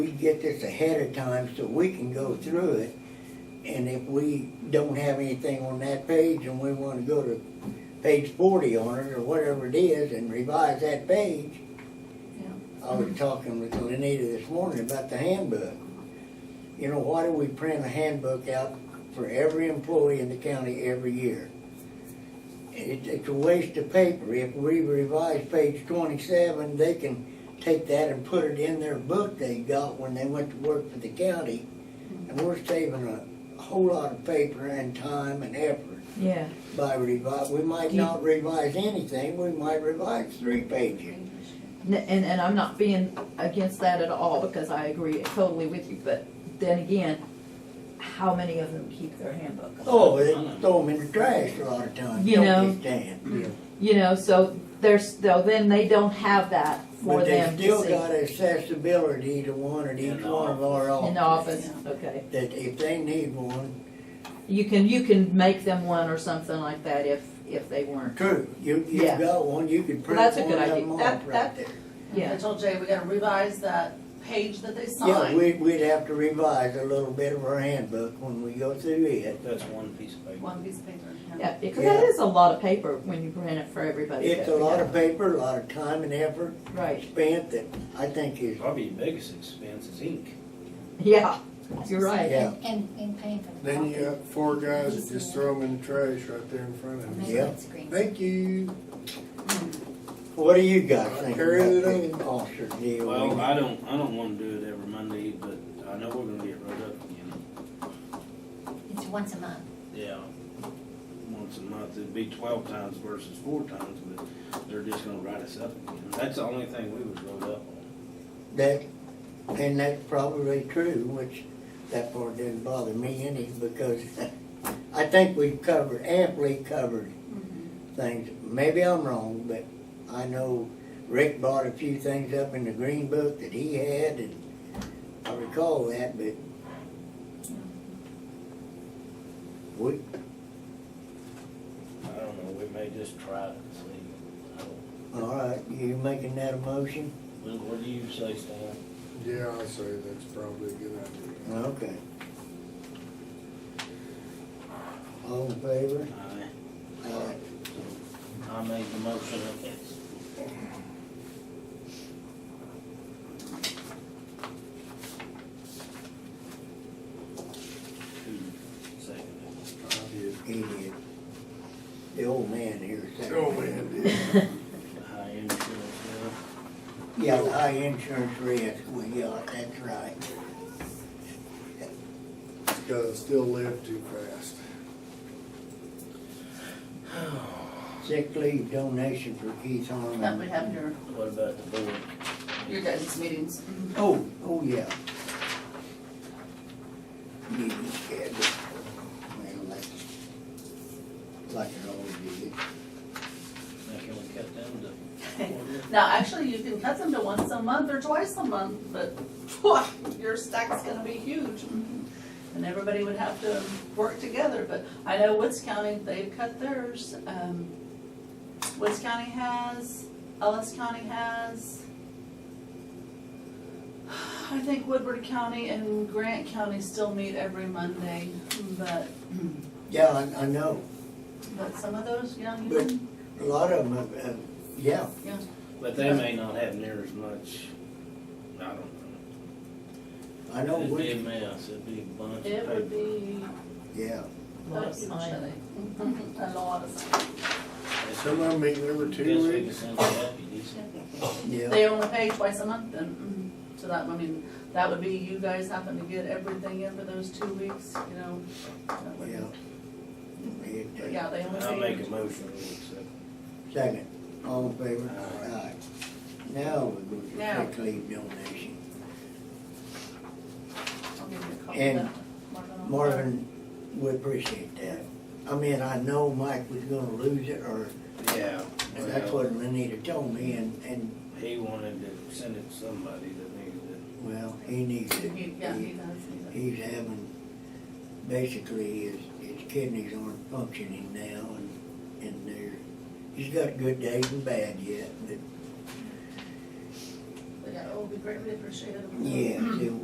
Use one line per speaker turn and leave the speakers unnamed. We get this ahead of time so we can go through it. And if we don't have anything on that page and we wanna go to page forty on it or whatever it is and revise that page. I was talking with Lenita this morning about the handbook. You know, why do we print a handbook out for every employee in the county every year? It, it's a waste of paper. If we revise page twenty-seven, they can take that and put it in their book they got when they went to work for the county. And we're saving a whole lot of paper and time and effort
Yeah,
by revise, we might
Do you-
not revise anything, we might revise three pages.
N- and, and I'm not being against that at all, because I agree totally with you, but then again, how many of them keep their handbook?
Oh, they throw them in the trash a lot of times,
You know.
don't they, Stan?
You know, so there's, though, then they don't have that for
But they
them to
still got
see
accessibility to one at each
In the
one of our
in the
offices.
office, okay.
That if they need one,
You can, you can make them one or something like that if, if they weren't,
true, you,
Yeah.
you've got one, you could print
that's a
one
good
of
idea.
them
That-
off right
that-
there.
yeah.
I told Jay, we gotta revise that page that they
Yeah,
signed.
we, we'd have to revise a little bit of our handbook when we go through it.
That's one piece of paper.
One piece of paper.
Yeah, because that
Yeah.
is a lot of paper when you print it for everybody.
It's a
that we
lot
have.
of paper, a lot of time and effort
Right,
spent that I think is,
Probably the biggest expense is ink.
yeah, you're right.
Yeah.
And, and paying for the
Then you
coffee.
got four guys that just throw them in the trash right there in front of you.
Yeah.
Thank you.
what do you guys think
Carry it
about the officer deal?
Well, I don't, I don't wanna do it every Monday, but I know we're gonna get right up again.
It's once a month.
Yeah. Once a month, it'd be twelve times versus four times, but they're just gonna write us up again. That's the only thing we was wrote up on.
That, and that's probably true, which that part didn't bother me any, because I think we've covered, amply covered things. Maybe I'm wrong, but I know Rick brought a few things up in the green book that he had, and I recall that, but we,
I don't know, we may just try it and see. I don't-
all right, you making that a motion?
What what do you say, Stan?
Yeah, I'll say that's probably a good idea.
Okay. All in favor?
I,
Aye.
I made the motion, okay. Who seconded?
I did.
Idiot. The old man here. said-
Oh, man, did.
High insurance, yeah.
Yeah, the high insurance risk we got, that's right.
Gotta still live too fast.
Sick leave donation for Keith Harmon.
That we have your,
What about the board?
your guys' meetings.
Oh, oh, yeah. Yeah, yeah, but- well, like, like it always is.
Now, can we cut down to?
Now, actually, you can cut them to once a month or twice a month, but your stack's gonna be huge. And everybody would have to work together, but I know Woods County, they've cut theirs. Um, Woods County has, Ellis County has. I think Woodward County and Grant County still meet every Monday, but,
Yeah, I, I know.
but some of those, yeah, you
But-
know,
A lot of them, uh, uh, yeah,
But they may not have near as much, I don't know.
I know
It'd be a
which,
mess, it'd be a bunch of
it would
paper.
be
yeah.
Lot of
Thank you,
signing.
Shelley. A lot of signing.
Some of them meeting every
Guess
two
we can
weeks.
send the deputies.
Yeah,
They only pay twice a month then, mm, so that, I mean, that would be you guys having to get everything in for those two weeks, you know? that would-
yeah. It, uh,
Yeah, they only
I'll make
pay.
a motion, we accept.
Second, all in favor?
Aye.
Aye. Now we're going
Now.
to sick leave donation.
I'll give you a copy of
And
that, Marvin, I'll-
Marvin, we appreciate that. I mean, I know Mike was gonna lose it, or,
Yeah.
and that's
well,
what Lenita told me, and, and,
He wanted to send it to somebody that needed
well, he needs it.
He- Yeah, he does, he does.
He's having, basically, his, his kidneys aren't functioning now, and, and they're, he's got good days and bad yet, but
But yeah, will be greatly appreciated. Mm-hmm.
Yes, it